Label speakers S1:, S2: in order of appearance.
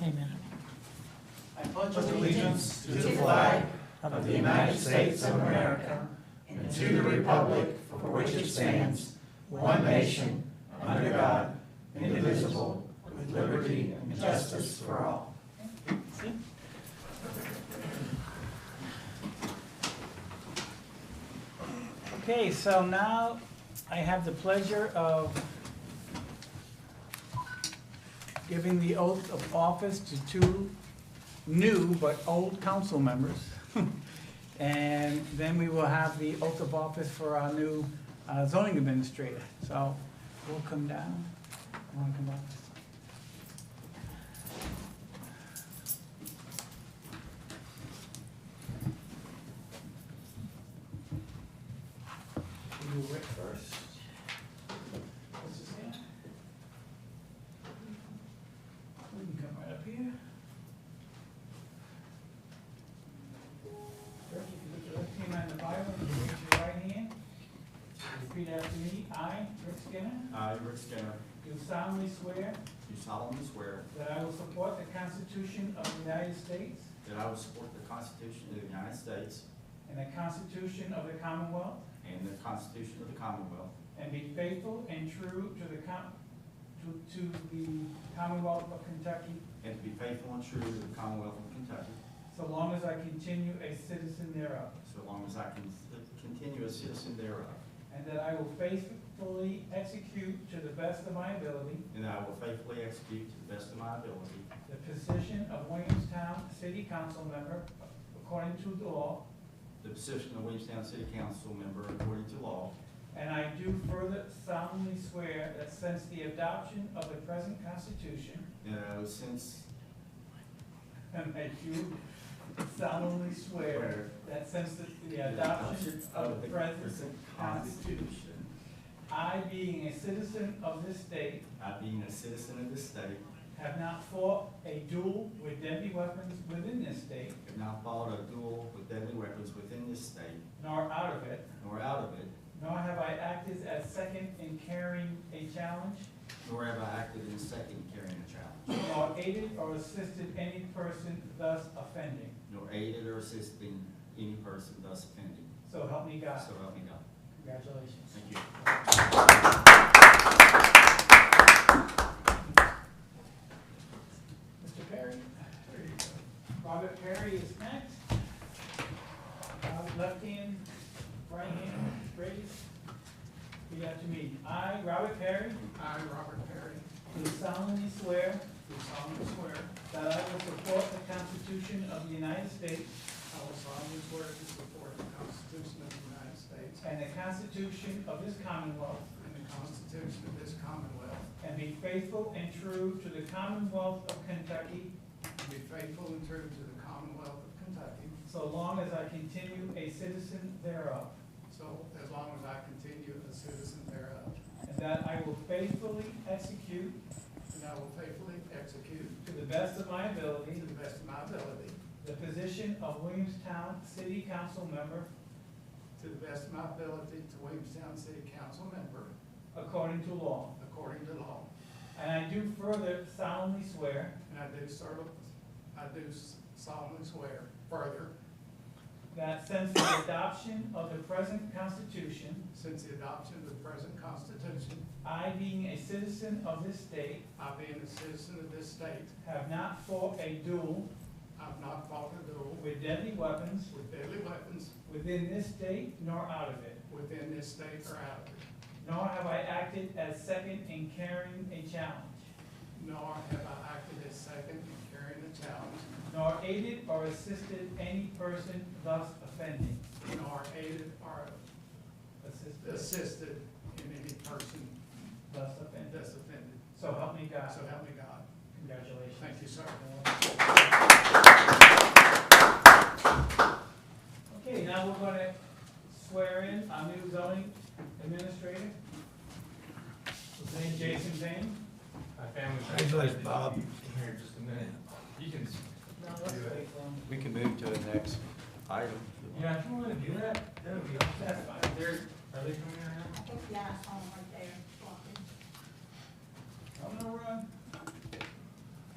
S1: Amen.
S2: I pledge allegiance to the
S3: flag
S2: of the United States of America and to the republic for which it stands, one nation, under God, indivisible, with liberty and justice for all.
S1: Okay, so now I have the pleasure of giving the oath of office to two new but old council members. And then we will have the oath of office for our new uh, zoning administrator. So we'll come down. You wanna come up?
S2: You Rick first.
S1: What's his name? We can come right up here. First, you can put your left hand on the Bible, and you raise your right hand. Repeat after me. I, Rick Skinner,
S4: I, Rick Skinner,
S1: do solemnly swear
S4: do solemnly swear
S1: that I will support the Constitution of the United States
S4: that I will support the Constitution of the United States
S1: and the Constitution of the Commonwealth,
S4: and the Constitution of the Commonwealth,
S1: and be faithful and true to the com, to, to the Commonwealth of Kentucky
S4: and to be faithful and true to the Commonwealth of Kentucky,
S1: so long as I continue a citizen thereof.
S4: so long as I can continue a citizen thereof,
S1: And that I will faithfully execute to the best of my ability
S4: and that I will faithfully execute to the best of my ability
S1: the position of Williamstown City Council member according to the law.
S4: the position of Williamstown City Council member according to law,
S1: And I do further solemnly swear that since the adoption of the present constitution,
S4: and that I will since
S1: and I do solemnly swear
S4: swear
S1: that since the- the adoption of the present,
S4: Constitution,
S1: I being a citizen of this state,
S4: I being a citizen of this state,
S1: have not fought a duel with deadly weapons within this state,
S4: have not fought a duel with deadly weapons within this state,
S1: nor out of it,
S4: nor out of it,
S1: Nor have I acted as second in carrying a challenge,
S4: Nor have I acted in second carrying a challenge,
S1: nor aided or assisted any person thus offending.
S4: nor aided or assisted any person thus offending.
S1: So help me God.
S4: So help me God.
S1: Congratulations.
S4: Thank you.
S1: Mr. Perry? Robert Perry is next. Uh, Left hand, right hand raised. Repeat after me. I, Robert Perry,
S2: I, Robert Perry,
S1: do solemnly swear
S2: do solemnly swear
S1: that I will support the Constitution of the United States
S2: I will solemnly swear to support the Constitution of the United States
S1: and the Constitution of this Commonwealth,
S2: and the Constitution of this Commonwealth,
S1: And be faithful and true to the Commonwealth of Kentucky,
S2: and be faithful and true to the Commonwealth of Kentucky,
S1: so long as I continue a citizen thereof.
S2: so as long as I continue a citizen thereof.
S1: And that I will faithfully execute,
S2: And I will faithfully execute,
S1: to the best of my
S2: to
S1: ability,
S2: the best of my ability,
S1: the position of Williamstown City Council member
S2: to the best of my ability, to Williamstown City Council member,
S1: according to law.
S2: according to law.
S1: And I do further solemnly swear
S2: And I do cer- I do solemnly swear further,
S1: that since the adoption of the present Constitution,
S2: since the adoption of the present Constitution,
S1: I being a citizen of this state,
S2: I being a citizen of this state,
S1: have not fought a duel
S2: I've not fought a duel
S1: with deadly weapons
S2: with deadly weapons
S1: within this state nor out of it.
S2: within this state or out of it,
S1: Nor have I acted as second in carrying a challenge,
S2: nor have I acted as second in carrying a challenge,
S1: nor aided or assisted any person thus offending.
S2: nor aided or
S1: Assisted,
S2: assisted in any person
S1: thus offended.
S2: that's offended.
S1: So help me God.
S2: So help me God.
S1: Congratulations.
S2: Thank you, sir.
S1: Okay, now we're gonna swear in our new zoning administrator. His name Jason Zane.
S5: My family.
S6: Congratulations, Bob.
S5: Here in just a minute. You can,
S1: No, let's wait for him.
S4: We can move to the next item.
S5: yeah, if you wanna do that, that would be awesome.
S1: That's fine.
S5: They're, are they coming right now?
S3: I think, yeah, I saw him right there
S1: I'm
S3: walking.
S1: gonna run.